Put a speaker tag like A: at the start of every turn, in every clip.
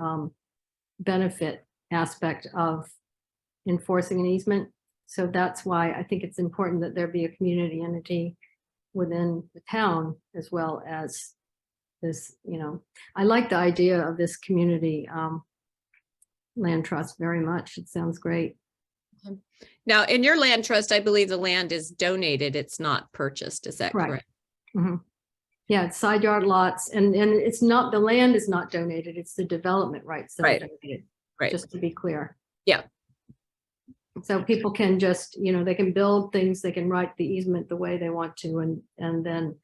A: um, benefit aspect of enforcing an easement. So that's why I think it's important that there be a community entity within the town as well as this, you know, I like the idea of this community um, land trust very much. It sounds great.
B: Now, in your land trust, I believe the land is donated. It's not purchased. Is that
A: Right.
B: correct?
A: Mhm. Yeah, it's side yard lots and, and it's not, the land is not donated. It's the development rights. that are
B: Right.
A: donated.
B: Right.
A: Just to be clear.
B: Yeah.
A: So people can just, you know, they can build things, they can write the easement the way they want to and, and then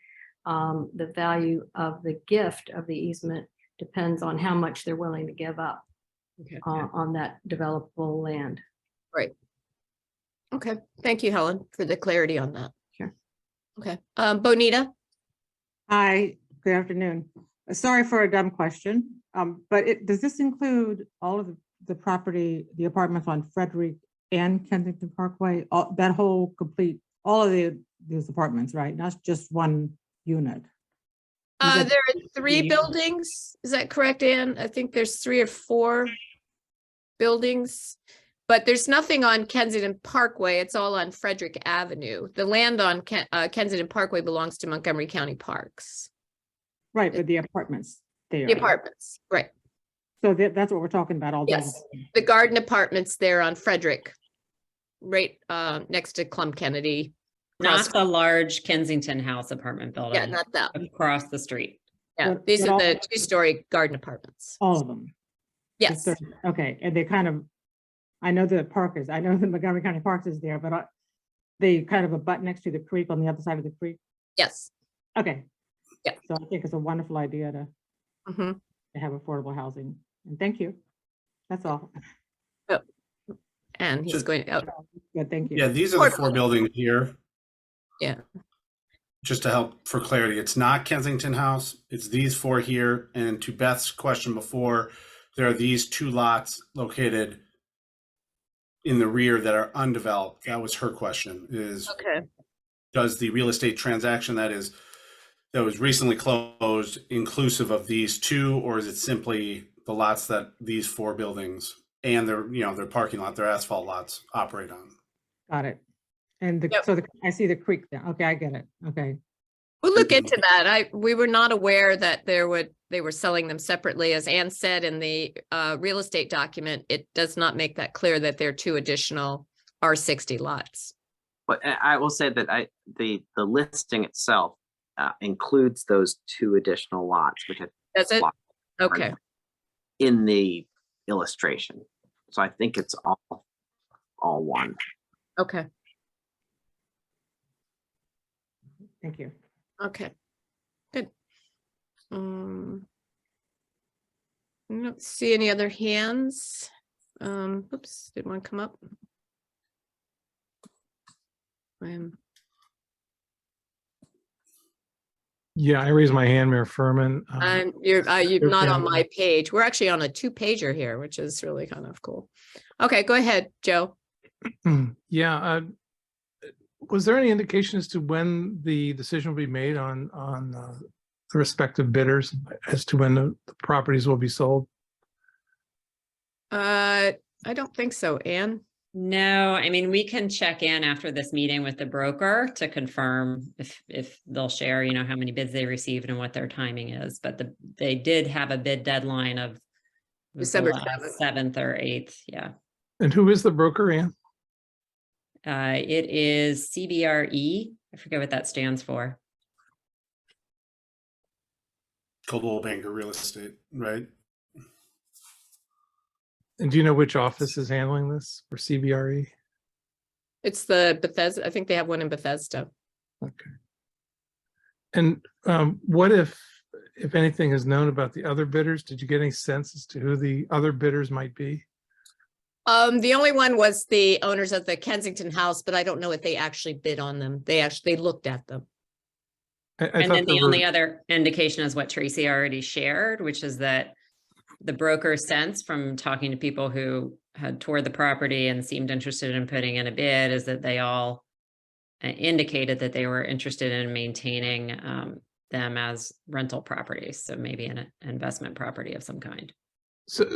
A: um, the value of the gift of the easement depends on how much they're willing to give up
B: Okay.
C: Um,
A: uh, on that developable land.
B: Okay. Thank you, Helen, for the clarity on that.
A: Sure.
B: Okay. Um, Bonita?
C: Hi, good afternoon. Uh, Sorry for a dumb question, um, but it, does this include all of the- the property, the apartments on Frederick and Kensington Parkway? All, that whole complete, all of the, these apartments, right? Not just one unit?
B: Uh,
C: that
B: there are three
C: the-
B: buildings. Is that correct, Anne? I think there's three or four buildings. But there's nothing on Kensington Parkway. It's all on Frederick Avenue. The land on Ken- uh, Kensington Parkway belongs to Montgomery County Parks,
C: Right, with the apartments there.
B: the apartments, right?
C: So that, that's what we're talking about, all those.
B: Yes. the garden apartments there on Frederick, right uh, next to Clum Kennedy.
D: Not
B: Cross-
D: the large Kensington House apartment building.
B: Yeah, not that. one.
D: Across the street.
B: Yeah,
C: But-
B: these
C: but
B: are
C: all-
B: the two-story garden apartments.
C: All of them. the
B: Yes,
C: third- Okay, and they kind of, I know the park is, I know the Montgomery County Parks is there, but I- they kind of abut next to the creek on the other side of the creek.
B: yes.
C: Okay.
B: Yeah.
C: So I think it's a wonderful idea to,
B: Mhm.
C: to have affordable housing. And thank you. That's all.
B: And he's
E: Just-
B: going, oh,
C: Good, thank you.
E: Yeah, these are the
B: Four
E: four buildings here.
B: Yeah.
E: Just to help for clarity, it's not Kensington House, it's these four here, and to Beth's question before, there are these two lots located in the rear that are undeveloped. That was her question, is
B: okay,
E: does the real estate transaction that is, that was recently closed inclusive of these two, or is it simply the lots that these four buildings and their, you know, their parking lot, their asphalt lots operate on?
C: Got it. And the,
B: Yep.
C: so the, I see the creek now. Okay, I get it. Okay.
B: we'll look into that. I, we were not aware that there would, they were selling them separately. As Ann said in the uh, real estate document, it does not make that clear that there are two additional R60 lots.
F: But I I will say that I, the, the listing itself uh, includes those two additional lots, which are
B: Does it? Okay,
F: in the illustration. So I think it's all, all one.
B: okay.
C: Thank you.
B: Okay, good. Um, I don't see any other hands. Um, oops, did one come up? Um,
G: Yeah, I raised my hand, Mayor Furman. Uh,
B: I'm, you're, uh, you're
G: Your
B: not on
G: camera.
B: my page. We're actually on a two pager here, which is really kind of cool. Okay, go ahead, Joe.
G: Yeah, uh, was there any indication as to when the decision will be made on, on uh, the respective bidders as to when the the properties will be sold?
B: Uh, I don't think so, Anne.
D: No, I mean, we can check in after this meeting with the broker to confirm if, if they'll share, you know, how many bids they received and what their timing is, but the, they did have a bid deadline of it was
B: December
D: July
B: 7th.
D: Seventh or eighth, yeah.
G: And who is the broker, Ann?
D: Uh, it is CBRE. E, I forget what that stands for.
E: Coldwell Banker Real Estate, right?
G: And do you know which office is handling this for CBRE?
B: It's the Bethesda, I think they have one in Bethesda.
G: Okay. And um, what if, if anything is known about the other bidders? Did you get any sense as to who the other bidders might be?
B: Um, the only one was the owners of the Kensington House, but I don't know if they actually bid on them. They actually, they looked at them.
G: I- I
D: And
G: thought
D: then the
G: there were-
D: only other indication is what Tracy already shared, which is that the broker sense from talking to people who had toured the property and seemed interested in putting in a bid is that they all uh, indicated that they were interested in maintaining um, them as rental properties, so maybe an investment property of some kind.
G: So,